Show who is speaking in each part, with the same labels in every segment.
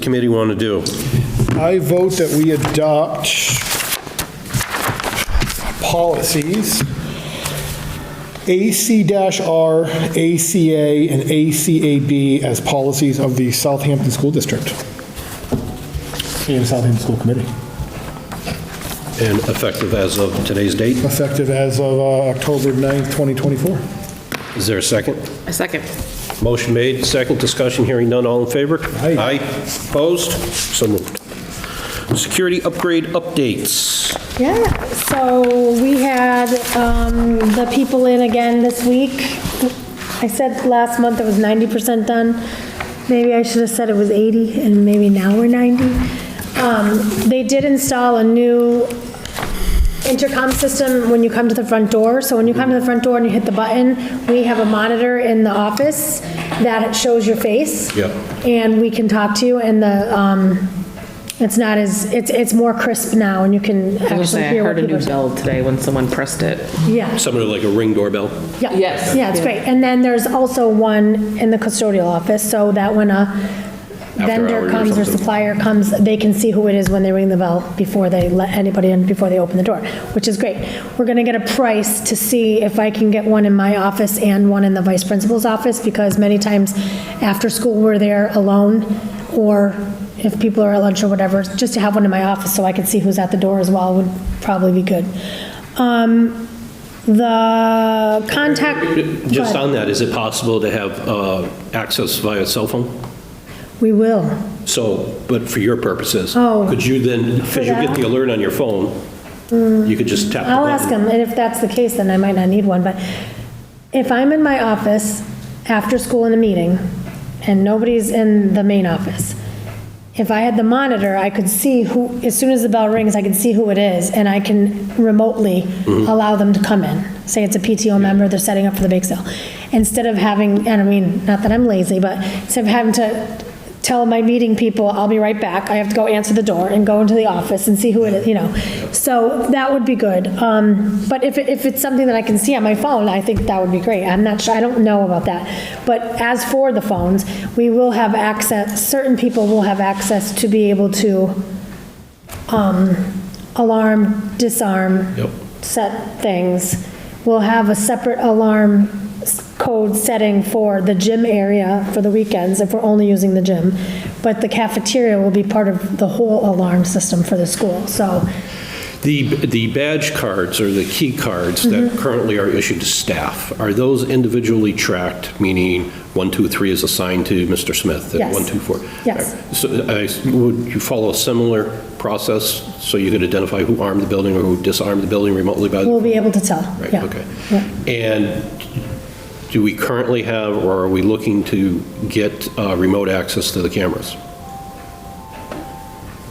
Speaker 1: committee want to do?
Speaker 2: I vote that we adopt policies, AC-R, ACA, and ACAB as policies of the Southampton School District. And Southampton School Committee,
Speaker 1: And effective as of today's date?
Speaker 2: effective as of uh, October 9th, 2024.
Speaker 1: Is there a second?
Speaker 3: A second.
Speaker 1: Motion made, second, discussion, hearing none, all in favor?
Speaker 2: Aye.
Speaker 1: Opposed? So moved. Security upgrade updates.
Speaker 4: Yeah, so we had um, the people in again this week. I said last month it was 90% done. Maybe I should have said it was 80, and maybe now we're 90. Um, They did install a new intercom system when you come to the front door. So when you come to the front door and you hit the button, we have a monitor in the office that shows your face.
Speaker 1: Yeah.
Speaker 4: And we can talk to you, and the, um, it's not as, it's, it's more crisp now, and you can
Speaker 3: I was
Speaker 4: actually
Speaker 3: gonna say, I
Speaker 4: hear what
Speaker 3: heard a new
Speaker 4: people...
Speaker 3: bell today when someone pressed it.
Speaker 4: Yeah,
Speaker 1: Something like a ring doorbell?
Speaker 4: yeah.
Speaker 3: Yes.
Speaker 4: Yeah, it's great. And then there's also one in the custodial office, so that when a
Speaker 1: hours
Speaker 4: vendor
Speaker 1: or
Speaker 4: comes or
Speaker 1: something.
Speaker 4: supplier comes, they can see who it is when they ring the bell before they let anybody in, before they open the door, which is great. We're gonna get a price to see if I can get one in my office and one in the vice principal's office, because many times after school, we're there alone, or if people are at lunch or whatever, just to have one in my office so I can see who's at the door as well would probably be good. Um, The contact. go
Speaker 1: Just
Speaker 4: ahead.
Speaker 1: on that, is it possible to have uh, access via cell phone?
Speaker 4: We will.
Speaker 1: So, but for your purposes?
Speaker 4: Oh.
Speaker 1: Could you then, because you get
Speaker 4: that? Mm.
Speaker 1: the alert on your phone, you could just tap the
Speaker 4: I'll ask
Speaker 1: button?
Speaker 4: him, and if that's the case, then I might not need one, but if I'm in my office after school in a meeting, and nobody's in the main office, if I had the monitor, I could see who, as soon as the bell rings, I can see who it is, and I can remotely allow them to come in. Say it's a PTO member, they're setting up for the bake sale. Instead of having, and I mean, not that I'm lazy, but instead of having to tell my meeting people, I'll be right back, I have to go answer the door and go into the office and see who it is, you know. So that would be good. Um, But if, it- if it's something that I can see on my phone, I think that would be great. I'm not sure, I don't know about that. But as for the phones, we will have access, certain people will have access to be able to um, alarm, disarm,
Speaker 1: Yep.
Speaker 4: set things. We'll have a separate alarm s- code setting for the gym area for the weekends if we're only using the gym. But the cafeteria will be part of the whole alarm system for the school. So
Speaker 1: The, the badge cards or the key cards
Speaker 4: Mm-hmm.
Speaker 1: that currently are issued to staff, are those individually tracked, meaning one, two, three is assigned to Mr. Smith? and
Speaker 4: Yes.
Speaker 1: One, two, four?
Speaker 4: Yes.
Speaker 1: So I, would you follow a similar process so you could identify who armed the building or who disarmed the building remotely by? the-
Speaker 4: we'll be able to tell.
Speaker 1: Right,
Speaker 4: Yeah.
Speaker 1: okay.
Speaker 4: Yeah.
Speaker 1: And do we currently have, or are we looking to get uh, remote access to the cameras?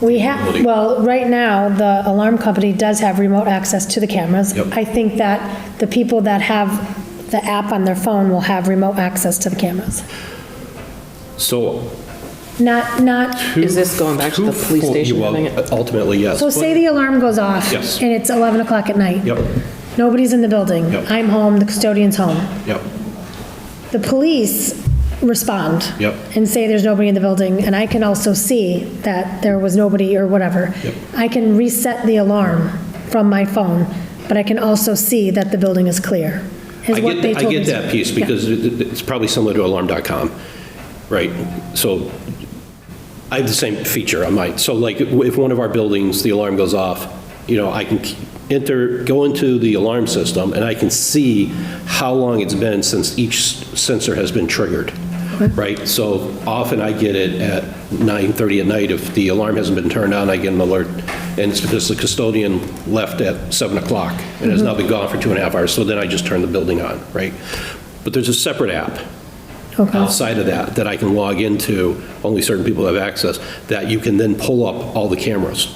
Speaker 4: We have, well, right now, the alarm company does have remote access to the cameras.
Speaker 1: Yep.
Speaker 4: I think that the people that have the app on their phone will have remote access to the cameras.
Speaker 1: So.
Speaker 4: Not, not
Speaker 3: Is this going back to the
Speaker 1: who-
Speaker 3: police station
Speaker 1: well,
Speaker 3: thing?
Speaker 1: Ultimately, yes.
Speaker 4: So say the alarm goes off.
Speaker 1: Yes.
Speaker 4: And it's 11 o'clock at night.
Speaker 1: Yep.
Speaker 4: Nobody's in the building.
Speaker 1: Yep.
Speaker 4: I'm home, the custodian's home.
Speaker 1: Yep,
Speaker 4: The police respond.
Speaker 1: Yep.
Speaker 4: And say there's nobody in the building, and I can also see that there was nobody or whatever.
Speaker 1: Yep.
Speaker 4: I can reset the alarm from my phone, but I can also see that the building is clear,
Speaker 1: I
Speaker 4: is what they
Speaker 1: get, I
Speaker 4: told me.
Speaker 1: get
Speaker 4: to-
Speaker 1: that piece,
Speaker 4: Yeah.
Speaker 1: because it- it- it's probably similar to alarm.com, right? So I have the same feature on mine. So like, if one of our buildings, the alarm goes off, you know, I can enter, go into the alarm system, and I can see how long it's been since each sensor has been triggered, right? So often I get it at 9:30 at night, if the alarm hasn't been turned on, I get an alert, and it's because the custodian left at 7 o'clock, and has now been gone for two and a half hours, so then I just turn the building on, right? But there's a separate app
Speaker 4: Okay.
Speaker 1: outside of that, that I can log into, only certain people have access, that you can then pull up all the cameras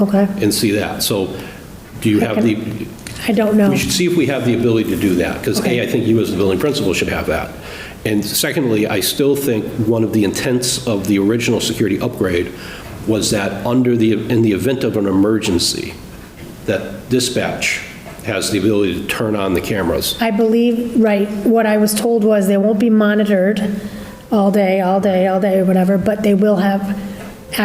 Speaker 4: Okay.
Speaker 1: and see that. So do you have the,
Speaker 4: I don't know.
Speaker 1: we should see if we have the ability to do that, because A, I think you as the building principal should have that. And secondly, I still think one of the intents of the original security upgrade was that under the, in the event of an emergency, that dispatch has the ability to turn on the cameras.
Speaker 4: I believe, right, what I was told was they won't be monitored all day, all day, all day, whatever, but they will have